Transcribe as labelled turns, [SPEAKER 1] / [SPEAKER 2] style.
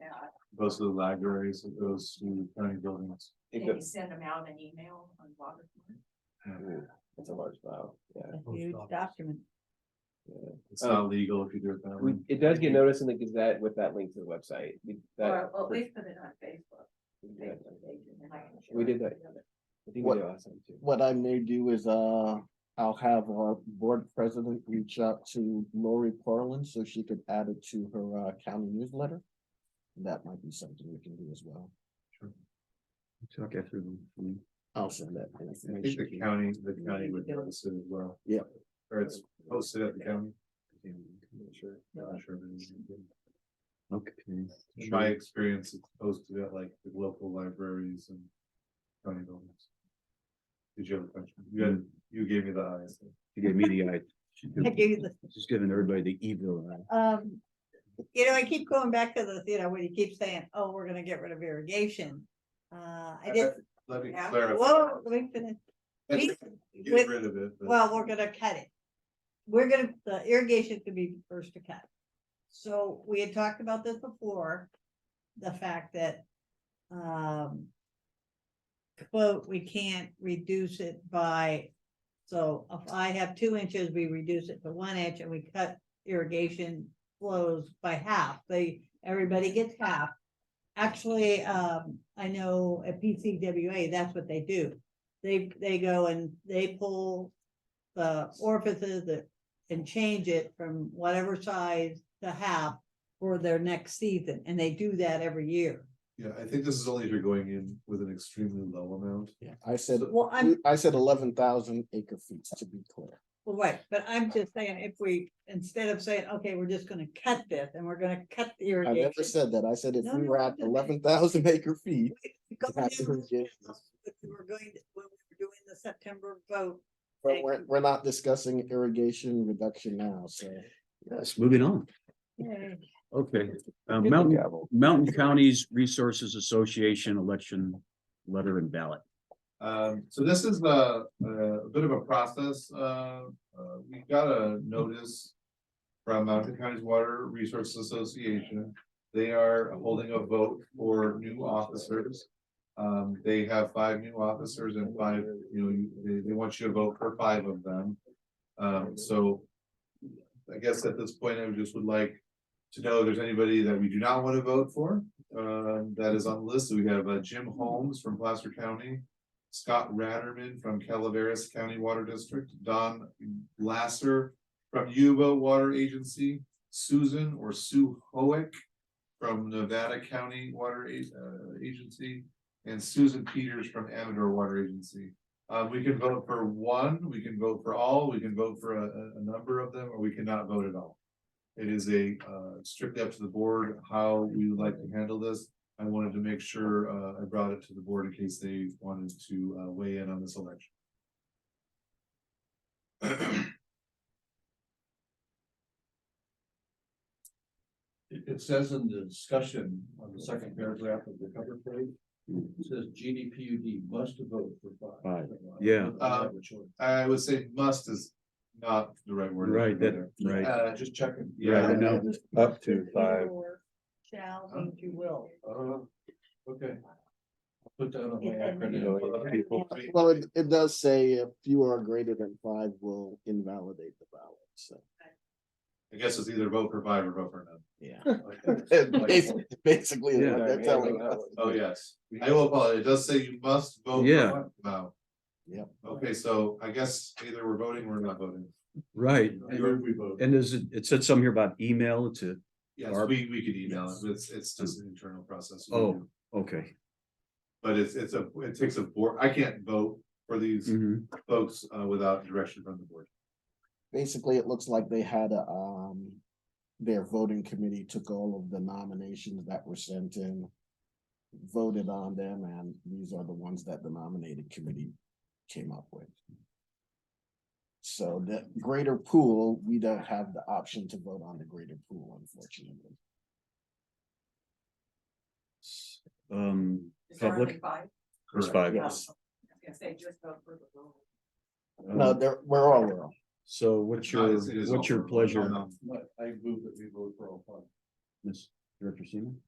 [SPEAKER 1] that,
[SPEAKER 2] goes to the libraries, it goes to county buildings.
[SPEAKER 3] It
[SPEAKER 1] maybe
[SPEAKER 3] goes,
[SPEAKER 1] send them out an email on water.
[SPEAKER 3] it's a large file, yeah.
[SPEAKER 4] a
[SPEAKER 5] Post
[SPEAKER 4] huge
[SPEAKER 5] office.
[SPEAKER 4] document.
[SPEAKER 2] It's not legal if you do it that way.
[SPEAKER 3] We, it does get noticed in the Gazette with that link to the website. We, that.
[SPEAKER 1] Or well, we put it on Facebook.
[SPEAKER 3] we did
[SPEAKER 1] Facebook
[SPEAKER 3] that.
[SPEAKER 1] page, and then I can share
[SPEAKER 3] We
[SPEAKER 1] it
[SPEAKER 3] did
[SPEAKER 1] with
[SPEAKER 3] that.
[SPEAKER 1] the other-
[SPEAKER 3] I think we
[SPEAKER 6] What-
[SPEAKER 3] did last time too.
[SPEAKER 6] What I may do is, uh, I'll have our board president reach out to Lori Portland so she could add it to her, uh, county newsletter. That might be something we can do as well.
[SPEAKER 5] Talk after them.
[SPEAKER 6] I'll send that
[SPEAKER 2] I think
[SPEAKER 6] information.
[SPEAKER 2] the county, the county would notice it as well.
[SPEAKER 6] Yeah.
[SPEAKER 2] Or it's posted at the county.
[SPEAKER 3] Sure.
[SPEAKER 2] I'm not sure if it is.
[SPEAKER 5] Okay.
[SPEAKER 2] In my experience, it's posted at like the local libraries and county buildings. Did you have a question? You had, you gave me the eyes.
[SPEAKER 5] She gave me the eye. She's
[SPEAKER 4] I
[SPEAKER 5] giving-
[SPEAKER 4] do the-
[SPEAKER 5] She's giving everybody the evil eye.
[SPEAKER 4] Um, you know, I keep going back to this, you know, when you keep saying, oh, we're gonna get rid of irrigation. Uh, I just,
[SPEAKER 2] Let me
[SPEAKER 1] Yeah.
[SPEAKER 2] clarify.
[SPEAKER 4] whoa, let me finish. We-
[SPEAKER 2] Get
[SPEAKER 4] with-
[SPEAKER 2] rid of it. but-
[SPEAKER 4] Well, we're gonna cut it. We're gonna, the irrigation could be first to cut. So we had talked about this before, the fact that, um. Quote, we can't reduce it by, so if I have two inches, we reduce it to one inch and we cut irrigation flows by half. They, everybody gets half. Actually, um, I know at PCWA, that's what they do. They, they go and they pull the orifices that, and change it from whatever size to half for their next season, and they do that every year.
[SPEAKER 2] Yeah, I think this is only if you're going in with an extremely low amount.
[SPEAKER 6] Yeah, I said,
[SPEAKER 4] Well, I'm,
[SPEAKER 6] I said eleven thousand acre feet to be clear.
[SPEAKER 4] well, right, but I'm just saying, if we, instead of saying, okay, we're just gonna cut this, and we're gonna cut the
[SPEAKER 6] I never
[SPEAKER 4] irrigation.
[SPEAKER 6] said that. I said if
[SPEAKER 4] No,
[SPEAKER 6] we
[SPEAKER 4] no,
[SPEAKER 6] were
[SPEAKER 4] no,
[SPEAKER 6] at
[SPEAKER 4] no, no.
[SPEAKER 6] eleven thousand acre feet,
[SPEAKER 4] Go down
[SPEAKER 6] That's
[SPEAKER 4] to what We
[SPEAKER 6] irrigation.
[SPEAKER 4] were going, to- when we were doing the September vote,
[SPEAKER 6] but
[SPEAKER 4] Thank
[SPEAKER 6] we're, we're not discussing irrigation reduction now, so.
[SPEAKER 5] Yes, moving on. Okay, uh, Mountain,
[SPEAKER 3] Gavel.
[SPEAKER 5] Mountain Counties Resources Association election letter and ballot.
[SPEAKER 2] Um, so this is the, a bit of a process, uh, uh, we got a notice. From Mountain Counties Water Resources Association, they are holding a vote for new officers. Um, they have five new officers and five, you know, you- they, they want you to vote for five of them. Um, so. I guess at this point, I just would like to know if there's anybody that we do not want to vote for, um, that is on the list, we have uh, Jim Holmes from Placer County. Scott Ratterman from Calaveras County Water District, Don Lasser from Yuba Water Agency, Susan or Sue Hoick from Nevada County Water A- uh, Agency, and Susan Peters from Amador Water Agency. Uh, we can vote for one, we can vote for all, we can vote for a, a- a number of them, or we cannot vote at all. It is a, uh, strictly up to the board how we would like to handle this. I wanted to make sure, uh, I brought it to the board in case they wanted to, uh, weigh in on this election.
[SPEAKER 7] It, it says in the discussion on the second paragraph of the cover page, it says GDPUD must vote for
[SPEAKER 5] Five,
[SPEAKER 7] five.
[SPEAKER 5] yeah.
[SPEAKER 7] I have a choice.
[SPEAKER 2] I would say must is not the right word.
[SPEAKER 5] Right, that, right.
[SPEAKER 2] Uh,
[SPEAKER 7] Just checking.
[SPEAKER 2] Yeah,
[SPEAKER 5] Right, no.
[SPEAKER 7] Up
[SPEAKER 4] to
[SPEAKER 7] five.
[SPEAKER 4] Shall means you will.
[SPEAKER 7] Uh-huh. Okay. Put that on my
[SPEAKER 4] If and when
[SPEAKER 7] acronym.
[SPEAKER 4] people-
[SPEAKER 6] Well, it, it does say if you are greater than five will invalidate the ballot, so.
[SPEAKER 2] I guess it's either vote for five or vote for none.
[SPEAKER 6] Yeah.
[SPEAKER 7] Okay.
[SPEAKER 6] Basically, basically, is
[SPEAKER 5] Yeah.
[SPEAKER 6] what they're telling us.
[SPEAKER 2] Oh, yes. I will apologize. It does say you must vote. for
[SPEAKER 5] Yeah.
[SPEAKER 2] one. Wow.
[SPEAKER 6] Yep.
[SPEAKER 2] Okay, so I guess either we're voting or we're not voting.
[SPEAKER 5] Right.
[SPEAKER 7] I heard we vote.
[SPEAKER 5] And is it, it said something here about email to,
[SPEAKER 2] Yes,
[SPEAKER 5] Barb?
[SPEAKER 2] we, we could email it. It's, it's just an internal process. we
[SPEAKER 5] Oh.
[SPEAKER 2] do.
[SPEAKER 5] okay.
[SPEAKER 2] But it's, it's a, it takes a board, I can't vote for these
[SPEAKER 5] Mhm.
[SPEAKER 2] folks, uh, without direction from the board.
[SPEAKER 6] Basically, it looks like they had a, um, their voting committee took all of the nominations that were sent in. Voted on them, and these are the ones that the nominated committee came up with. So the greater pool, we don't have the option to vote on the greater pool, unfortunately.
[SPEAKER 5] Um,
[SPEAKER 1] Is there
[SPEAKER 5] Public?
[SPEAKER 1] only five?
[SPEAKER 5] there's five.
[SPEAKER 6] Yes.
[SPEAKER 1] I was gonna say, just vote for the rule.
[SPEAKER 6] No, they're, we're all wrong.
[SPEAKER 5] Um, So what's
[SPEAKER 2] No,
[SPEAKER 5] your,
[SPEAKER 2] it's- it is
[SPEAKER 5] what's your
[SPEAKER 2] all verbal.
[SPEAKER 5] pleasure,
[SPEAKER 2] Um,
[SPEAKER 7] I move that we vote for all five.
[SPEAKER 5] Ms. Director Seaman?